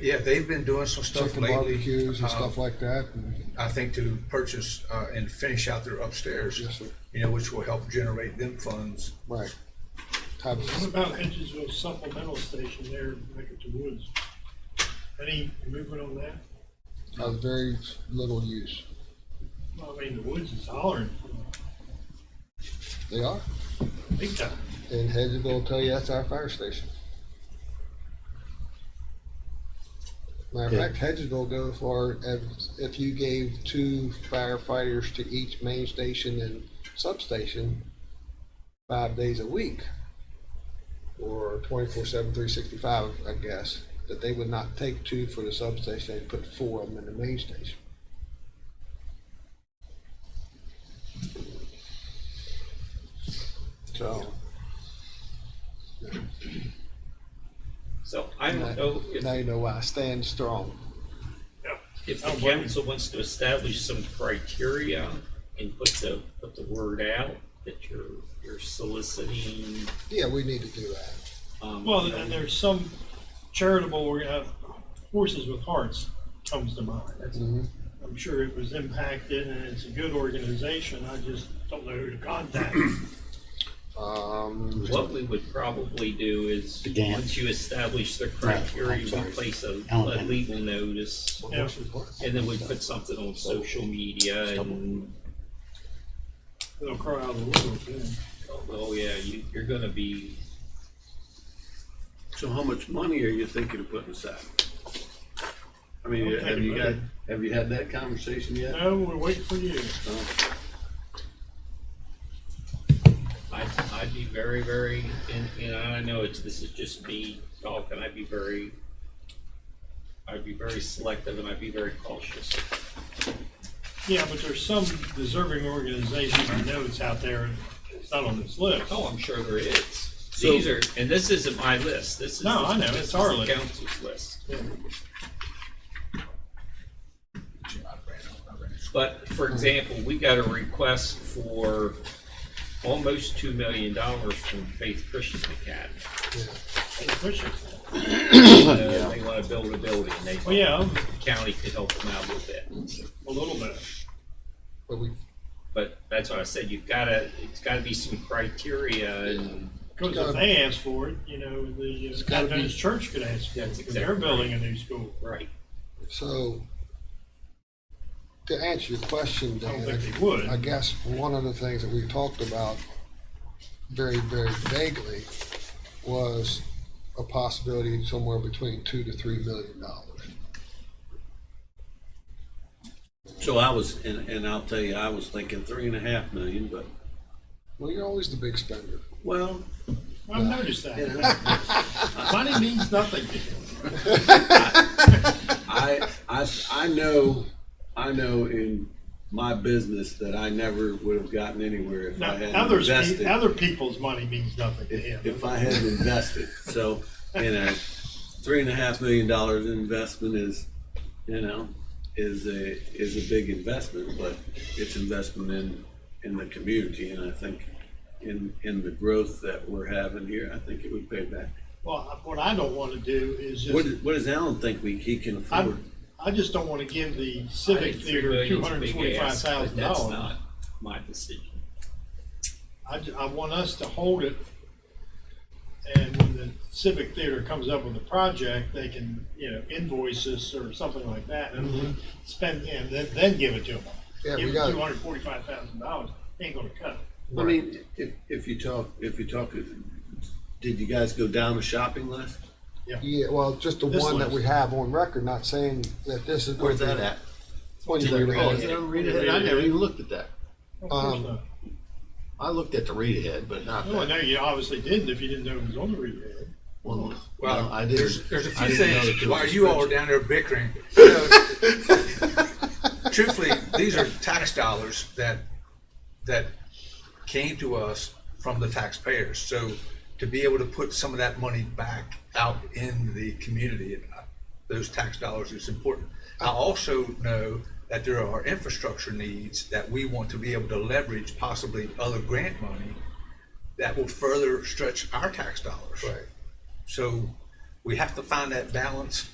yeah, they've been doing some stuff chicken lately. barbecues um, and stuff like that. And, I think to purchase uh, and finish out their upstairs. Yes, sir. You know, which will help generate them funds. right. Types What of- about Hedgesville supplemental station there back at the woods? Any movement on that? of very little use. Well, I mean, the woods is hollering They are. big time. And Hedgesville will tell you that's our fire station. Matter of Yeah. fact, Hedgesville go as far as if you gave two firefighters to each main station and substation five days a week, or 24 7, 365, I guess, that they would not take two for the substation, they'd put four of them in the main station. So, So I now- don't know now if, you know why I stand strong. if the council wants to establish some criteria and put the, put the word out that you're, you're soliciting, Yeah, we need to do that. um. Well, you know, and there's some charitable, we're gonna have Horses with Hearts comes to mind. That's- Mhm. I'm sure it was impacted and it's a good organization. I just don't know who to contact. Um, What we would probably do is, Again. once you establish the Right, I'm criteria, we sorry. place a, a Element. legal notice. Yeah. And then we put something on social media and, It'll cry out a little bit. oh yeah, you, you're gonna be, So how much money are you thinking of putting aside? I mean, Okay, have you got, really. have you had that conversation yet? No, we're waiting for you. I'd, I'd be very, very, and, and I know it's, this is just me talking, I'd be very, I'd be very selective and I'd be very cautious. Yeah, but there's some deserving organization I know it's out there and it's not on this list. Oh, I'm sure there is. So- These are, and this isn't my list, this is. No, the- I know, this it's is our the list. Council's list. Yeah. But for example, we got a request for almost two million dollars from Faith Christian Academy. Hey, push it. Uh, They want to build a building, they Well, thought yeah, the county could help them out a little bit. a little bit. but we But that's what I said, you've gotta, it's gotta be some criteria and Because if they ask for it, you know, the uh, gotta be- Adventist church could ask for it. That's because They're exactly building a new school. right. So, to answer your question, I don't Dan, think they would. I guess one of the things that we talked about very, very vaguely was a possibility somewhere between two to three million dollars. So I was, and, and I'll tell you, I was thinking three and a half million, but, Well, you're always the big spender. well, I've noticed you that. know, Money means nothing to them. I, I, I know, I know in my business that I never would have gotten anywhere if Now, I hadn't others, pe- invested. other people's money means nothing to If, him. if I hadn't invested, so, you know, three and a half million dollars in investment is, you know, is a, is a big investment, but it's investment in, in the community, and I think in, in the growth that we're having here, I think it would pay back. Well, I- what I don't want to do is What, just, what does Alan think we, he can I, afford? I just don't want to give the I Civic think three Theater two million's a hundred and big forty-five ask, but thousand That's dollars. not my decision. I, ju- I want us to hold it. And when the Civic Theater comes up with a project, they can, you know, invoice us or something like that and spend, and then, then give it to them. Mm-hmm. Yeah, we Give got- them two hundred forty-five thousand dollars, ain't gonna cut it. I mean, if, if you talk, if you talk, did you guys go down the shopping list? Yeah, well, just the This one that list. we have on record, not saying that this is. Where's that at? One year Oh, is ahead. it on read ahead? I never even looked at that. Of course Um, not. I looked at the read ahead, but not Well, I that. know you obviously didn't if you didn't know it was on the read ahead. Well, Well, no, I didn't. there's, there's a I few didn't know that things there while was a you all are spreadsheet. down there bickering. you know, Truthfully, these are tax dollars that, that came to us from the taxpayers. So to be able to put some of that money back out in the community, uh, those tax dollars is important. I also know that there are infrastructure needs that we want to be able to leverage possibly other grant money that will further stretch our tax dollars. Right. So we have to find that balance